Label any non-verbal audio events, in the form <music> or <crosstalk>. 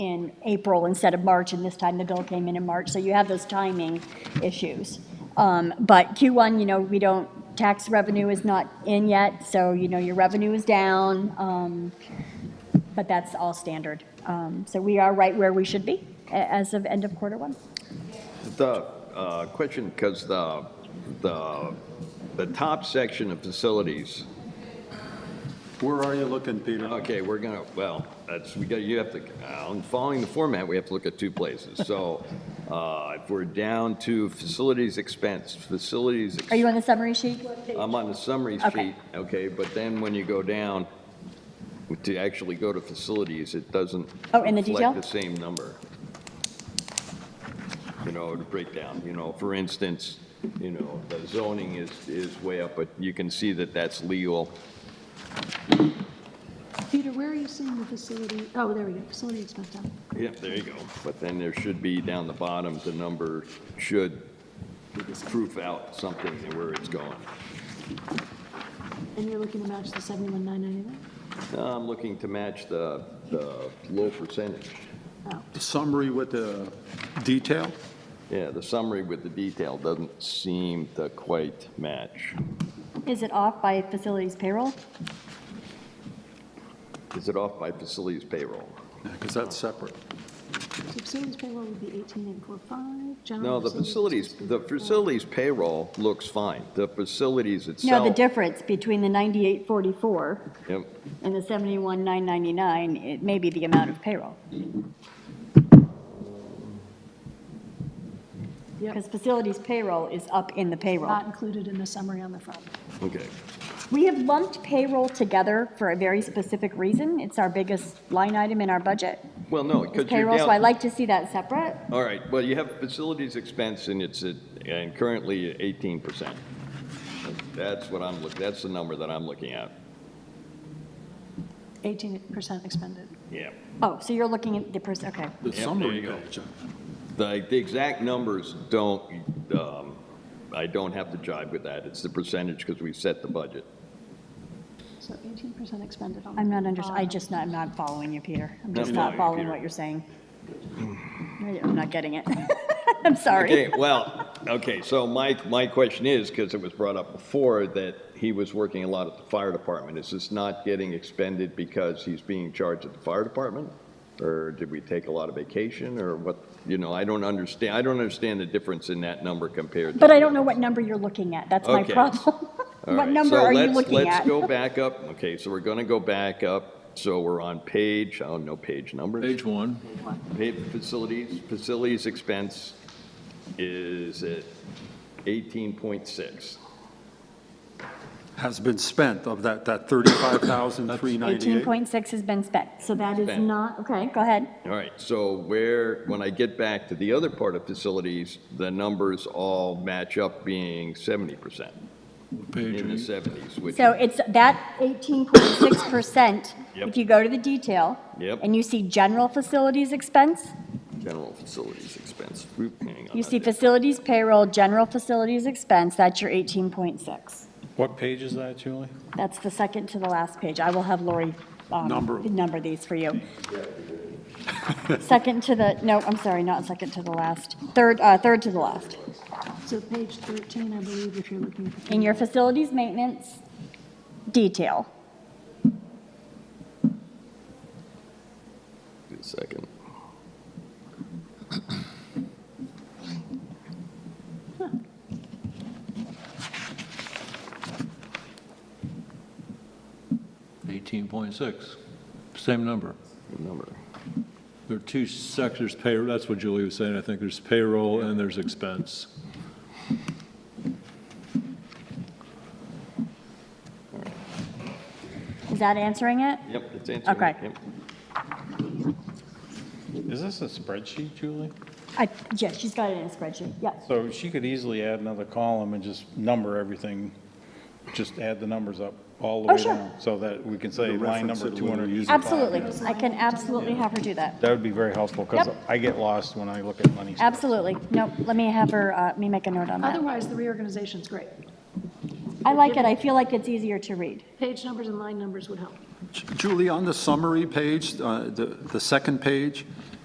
in April instead of March, and this time the bill came in in March, so you have those timing issues. Um, But Q1, you know, we don't, tax revenue is not in yet, so, you know, your revenue is down, um, but that's all standard. Um, So we are right where we should be a- as of end of quarter one. The uh, question, because the, the, the top section of facilities, Where are you looking, Peter? okay, we're gonna, well, that's, we got, you have to, uh, on following the format, we have to look at two places. So uh, if we're down to facilities expense, facilities, ex- Are you on the summary sheet? I'm on the summary Okay. sheet, okay, but then when you go down to actually go to facilities, it doesn't Oh, in the detail? reflect the same number. You know, to break down, you know, for instance, you know, the zoning is, is way up, but you can see that that's legal. Peter, where are you seeing the facility? Oh, there we go, facility expense down. Yep, there you go. But then there should be down the bottom, the number should proof out something where it's going. And you're looking to match the 71,999? Now, I'm looking to match the, the low percentage. Oh, The Summary with the detail? Yeah, the summary with the detail doesn't seem to quite match. Is it off by facilities payroll? Is it off by facilities payroll? Because that's separate. so facilities payroll would be 18,845, No, general the facilities, the 16,845. facilities payroll looks fine. The facilities No, itself. the difference between the 9844 Yep, and the 71,999, it may be the amount of payroll. Yep. Because facilities payroll is up in the payroll. Not included in the summary on the front. okay. We have lumped payroll together for a very specific reason. It's our biggest line item in our budget. Well, no, It's because you're payroll, down. so I like to see that separate. All right, well, you have facilities expense and it's at, and currently at eighteen percent. That's what I'm look, that's the number that I'm looking at. 18% expended. Yeah. Oh, so you're looking at the person, okay. The Yep, there summary you go. page. uh, The, the exact numbers don't, um, I don't have to jive with that. It's the percentage because we set the budget. So 18% expended on. I'm not under, I on- just not, I'm not following you, Peter. I'm No, just no, not you, following Peter. what you're saying. I'm not getting it. <laughs> I'm sorry. Okay, well, okay, so my, my question is, because it was brought up before, that he was working a lot at the fire department. Is this not getting expended because he's being charged at the fire department? Or did we take a lot of vacation, or what, you know, I don't understand, I don't understand the difference in that number compared to. But I don't know what number you're looking at. That's my Okay. problem. <laughs> All What right, number so are you let's- looking at? Let's go back up, okay, so we're gonna go back up, so we're on page, I don't know page numbers. Page one, Paid facilities, facilities expense is at 18.6. Has been spent of that, that 35,398. 18.6 has been spent, so that is Spent. not, okay, go ahead. All right, so where, when I get back to the other part of facilities, the numbers all match up being 70%, page in the eight. 70s, which, So it's that 18.6%, Yep. if you go to the detail. Yep. And you see general facilities expense, general facilities expense, Oop, hang on. you see I did- facilities payroll, general facilities expense, that's your 18.6. What page is that, Julie? That's the second to the last page. I will have Lori um, Number. number these for you. <laughs> Second to the, no, I'm sorry, not second to the last, third, uh, third to the last. So page 13, I believe, if you're looking at the. In your facilities maintenance detail. Wait a Second. Eighteen point six, same number. Number. There are two sectors, payroll, that's what Julie was saying, I think there's payroll and there's expense. Is that answering it? Yep, it's answering. Okay. Yep. Is this a spreadsheet, Julie? I, yeah, she's got it in a spreadsheet, yes. So she could easily add another column and just number everything, just add the numbers up all the Oh, way sure. down. So that we can say The line reference number that we were 200. using. Absolutely, I can absolutely have her do that. That would be very helpful because Yep. I get lost when I look at money. stuff. Absolutely, no, let me have her, uh, let me make a note on that. Otherwise, the reorganization's great. I like it, I feel like it's easier to read. Page numbers and line numbers would help. Julie, on the summary page, uh, the the second page,